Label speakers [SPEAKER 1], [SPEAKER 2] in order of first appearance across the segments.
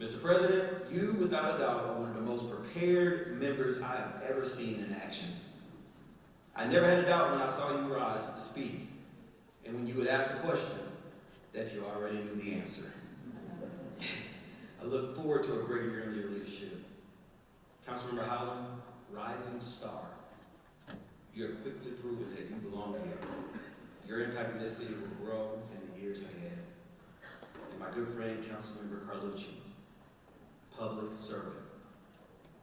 [SPEAKER 1] Mr. President, you without a doubt are one of the most prepared members I have ever seen in action. I never had a doubt when I saw you rise to speak, and when you would ask a question, that you already knew the answer. I look forward to a great year under your leadership. Councilmember Howland, rising star, you have quickly proven that you belong here. Your impact in this city will grow in the years ahead and my good friend, Councilmember Carlucci, public servant.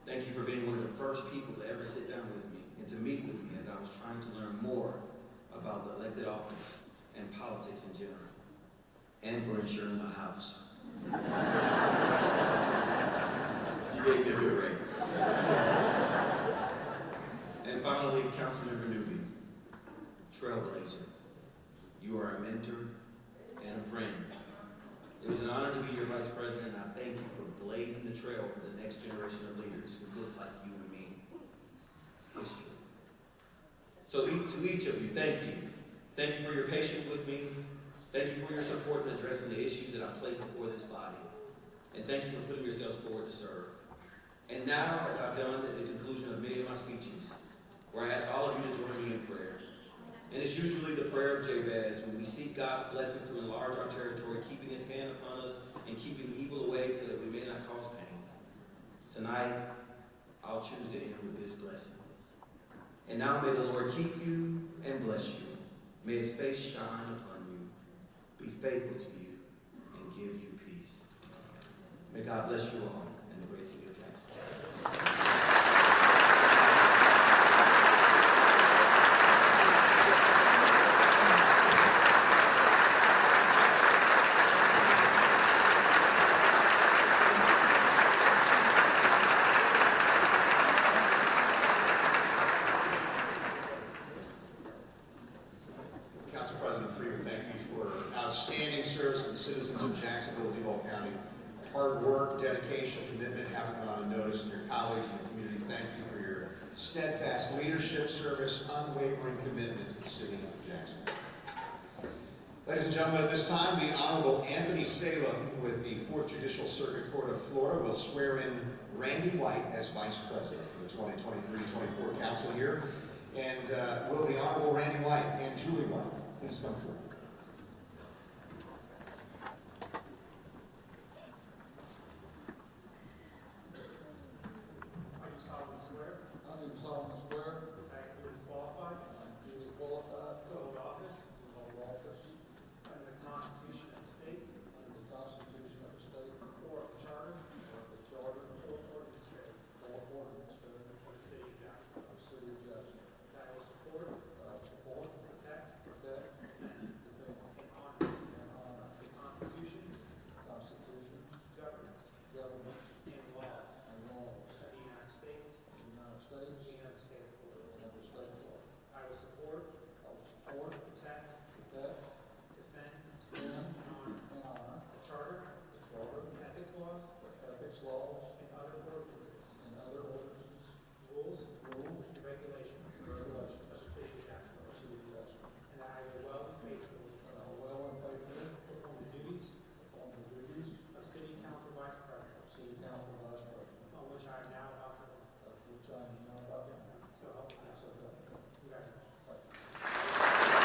[SPEAKER 1] Thank you for being one of the first people to ever sit down with me and to meet with me as I was trying to learn more about the elected office and politics in general, and for insuring my house. You gave me a good raise. And finally, Councilmember Newby, trailblazer. You are a mentor and a friend. It was an honor to be your vice president, and I thank you for blazing the trail for the next generation of leaders who look like you and me. History. So e- to each of you, thank you. Thank you for your patience with me. Thank you for your support in addressing the issues that I place before this body. And thank you for putting yourselves forward to serve. And now, as I've done at the conclusion of many of my speeches, where I ask all of you to join me in prayer. And it's usually the prayer of Jabez when we seek God's blessing to enlarge our territory, keeping his hand upon us and keeping evil away so that we may not cause pain. Tonight, I'll choose to end with this blessing. And now may the Lord keep you and bless you. May his face shine upon you, be faithful to you, and give you peace. May God bless you all in the great city of Jackson.
[SPEAKER 2] Council President Freeman, thank you for outstanding service to the citizens of Jacksonville, Duval County. Hard work, dedication, commitment, haven't gone unnoticed, and your colleagues in the community, thank you for your steadfast leadership, service, unwavering commitment to the city of Jacksonville. Ladies and gentlemen, at this time, the Honorable Anthony Salem with the Fourth Judicial Circuit Court of Florida will swear in Randy White as Vice President for the 2023-24 council year. And uh, will the Honorable Randy White and Julie White please come forward?
[SPEAKER 3] I do solemnly swear
[SPEAKER 4] I do solemnly swear
[SPEAKER 3] that I am duly qualified
[SPEAKER 4] I am duly qualified
[SPEAKER 3] to hold office
[SPEAKER 4] to hold office
[SPEAKER 3] under the Constitution of the state
[SPEAKER 4] under the Constitution of the state
[SPEAKER 3] or the charter
[SPEAKER 4] and the Charter
[SPEAKER 3] or ordinance thereof
[SPEAKER 4] or ordinance thereof
[SPEAKER 3] of the city of Jacksonville.
[SPEAKER 4] of the City of Jacksonville.
[SPEAKER 3] That I will support,
[SPEAKER 4] That I will support,
[SPEAKER 3] protect,
[SPEAKER 4] protect,
[SPEAKER 3] defend, and
[SPEAKER 4] defend,
[SPEAKER 3] honor
[SPEAKER 4] and honor
[SPEAKER 3] the constitutions,
[SPEAKER 4] the Constitution,
[SPEAKER 3] governments,
[SPEAKER 4] governments,
[SPEAKER 3] and laws
[SPEAKER 4] and laws
[SPEAKER 3] of the United States
[SPEAKER 4] of the United States
[SPEAKER 3] and of the state of Florida.
[SPEAKER 4] and of the state of Florida.
[SPEAKER 3] I will support,
[SPEAKER 4] I will support,
[SPEAKER 3] protect,
[SPEAKER 4] protect,
[SPEAKER 3] defend,
[SPEAKER 4] defend,
[SPEAKER 3] and honor
[SPEAKER 4] and honor
[SPEAKER 3] the charter,
[SPEAKER 4] the Charter,
[SPEAKER 3] ethics laws,
[SPEAKER 4] the ethics laws,
[SPEAKER 3] and other ordinances,
[SPEAKER 4] and other ordinances,
[SPEAKER 3] rules,
[SPEAKER 4] rules,
[SPEAKER 3] and regulations
[SPEAKER 4] and regulations
[SPEAKER 3] of the city of
[SPEAKER 4] of
[SPEAKER 3] Jacksonville.
[SPEAKER 4] the City of Jacksonville.
[SPEAKER 3] And that I will well and faithfully
[SPEAKER 4] And I will well and faithfully
[SPEAKER 3] perform the duties
[SPEAKER 4] perform the duties
[SPEAKER 3] of City Council Vice President,
[SPEAKER 4] of City Council Vice President,
[SPEAKER 3] on which I am now about to enter.
[SPEAKER 4] of which I am now about to enter.
[SPEAKER 3] So help me God.
[SPEAKER 4] So help me God.
[SPEAKER 3] Congratulations.
[SPEAKER 4] Thank you.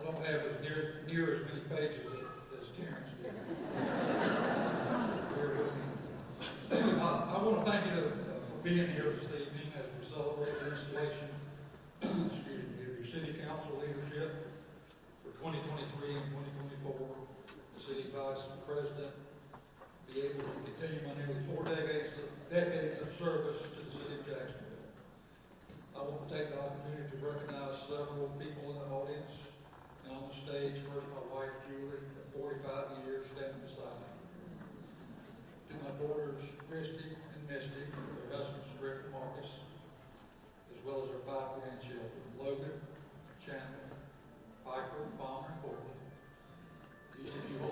[SPEAKER 4] I don't have as near, near as many pages as- as Terrence did. Bear with me. I, I want to thank you uh, for being here this evening as we celebrate the installation, excuse me, of your city council leadership for 2023 and 2024. The city vice president be able to continue my nearly four decades, decades of service to the city of Jacksonville. I want to take the opportunity to recognize several people in the audience and on the stage. First, my wife Julie, of forty-five years, standing beside me. To my daughters Christy and Misty, their husbands Rick and Marcus, as well as our five grandchildren, Logan, Chandler, Piper, Bomber, and Porter. Each of you hold